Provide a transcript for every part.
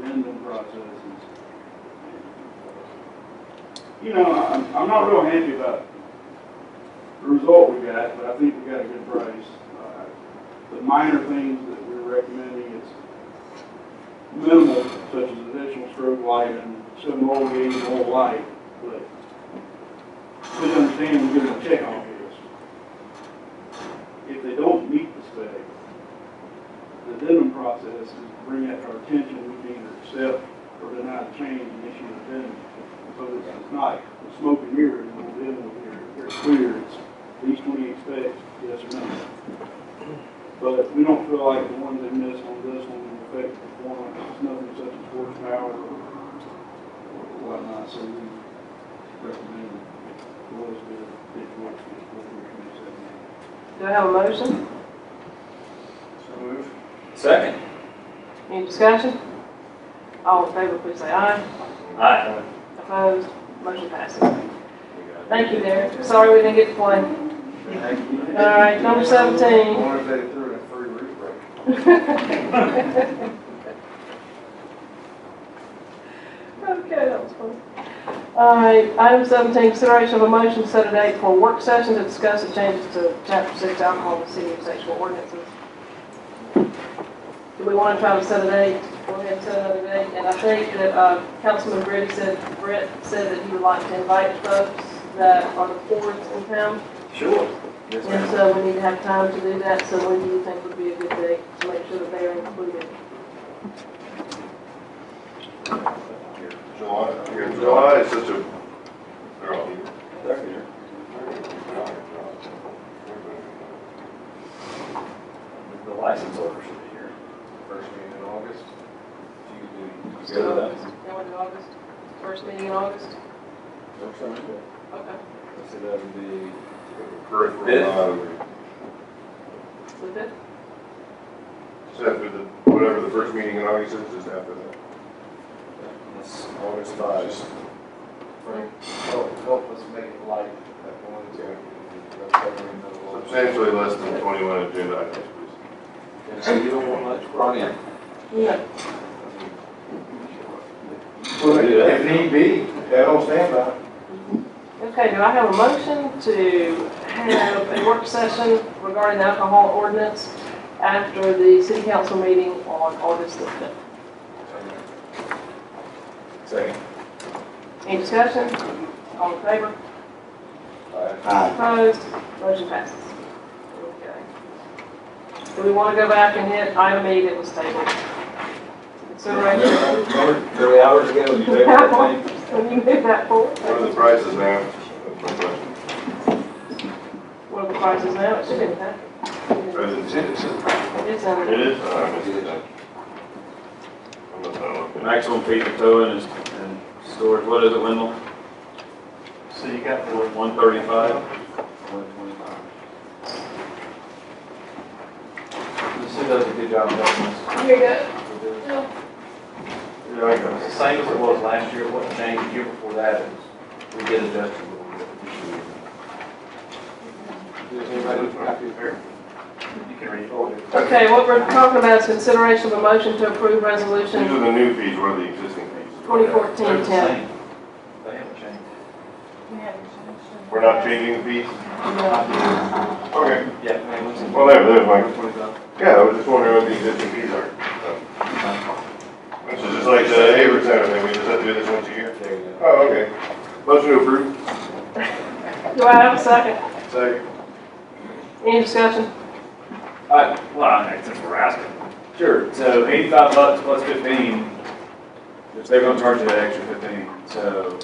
lending process. You know, I'm, I'm not real happy about the result we got, but I think we got a good price. Uh, The minor things that we're recommending is minimal, such as additional strobe light and some old gauge and old light, but please understand, we're gonna check on this. If they don't meet the spec, the addendum process is to bring that to our attention, we can either accept or deny the change and issue an addendum. So this is not a smoke and mirrors, and we're dealing with here, they're clear, it's these twenty-eight specs, yes or no. But we don't feel like the ones they missed on this one will affect performance, it's nothing such as horsepower or whatnot, so we recommend the lowest bid, bid for it, is what we're gonna say. Do I have a motion? So move. Second. Any discussion? All in favor, please say aye. Aye. Opposed? Motion passes. Thank you, Derek. Sorry we didn't get to play. Thank you. All right, number I 17. wonder if they threw in a free roof break. Okay, that was fun. All right, item 17, consideration of a motion to set a date for a work session to discuss the changes to Chapter 6 alcohol and city of sexual ordinances. Do we want to try to set a date? Go ahead and set another date. And I think that uh, Councilman Brett said, Brett said that he would like to invite folks that are the boards in town. Sure. Yes, And ma'am. so we need to have time to do that, so when do you think would be a good day to make sure that they are included? July, July is such a, they're all here. The license order should be here. First meeting in August. You good with that? Going to August, first meeting in August? Okay, So that would be. Correct. Fifth. uh, the fifth? It's after the, whatever the first meeting in August is, is after that. That's August five. Help, help us make it light that one. so we can- that's how we know. Substantially less than twenty-one agenda items, please. And so you don't want much brought in? Yeah. Well, If need be, that will stand by. Okay, do I have a motion to have a work session regarding the alcohol ordinance after the city council meeting on August the fifth? Second. Any discussion? All in favor? Opposed? Motion passes. Okay. Do we want to go back and hit item E that was tabled? Consideration. Three hours ago, you take that thing? Can you move that forward? What are the prices now? That's my question. What are the prices now? It should be that. Or is it- is it- It's under. It is, uh, I missed that. I must not look at it. Maximum feet of towing is, and storage, what is it, Wendell? So you got the One thirty-five? One twenty-five. The city does a good job of helping Here you go. us. Yeah, I got It's it. the same as it was last year, what changed the year before that is we did adjust a little bit this year. Does anybody have to prepare? You can read it. Oh, Okay, what we're talking about is consideration of a motion to approve These are resolution the new fees, what are the existing fees? twenty fourteen They're the ten. same. They haven't changed. We're not changing the fees? Okay. Yeah, I mean, it's- Well, there, there's my, $20,000. yeah, I was just wondering what the existing fees are. This is just like the Hayward Center thing, we just have to do this once a year. There you go. Oh, okay. Motion to approve. Do I have a second? Second. Any discussion? Uh, well, I think we're asking. Sure, so eighty-five bucks plus fifteen, which they're gonna charge you that extra fifteen, so,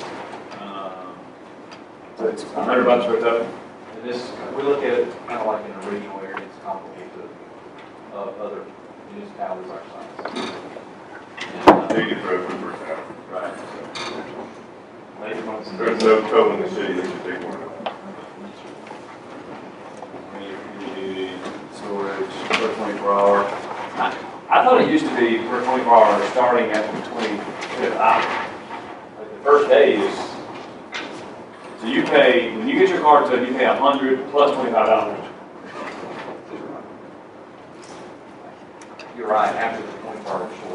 um, so it's a hundred bucks for a tow. And this, we look at it kind of like in a regional area, it's complicated to, of other municipalities our size. And, uh, Duty for open for town. Right. Later on, it's- There's no tow in the city that should take one of them. Community storage per twenty-four hour. I I thought it used to be per twenty-four hour, starting at the twenty-fifth hour. Like the first day is, so you pay, when you get your car towed, you pay a hundred plus twenty-five dollars. You're right, after the point part, sure.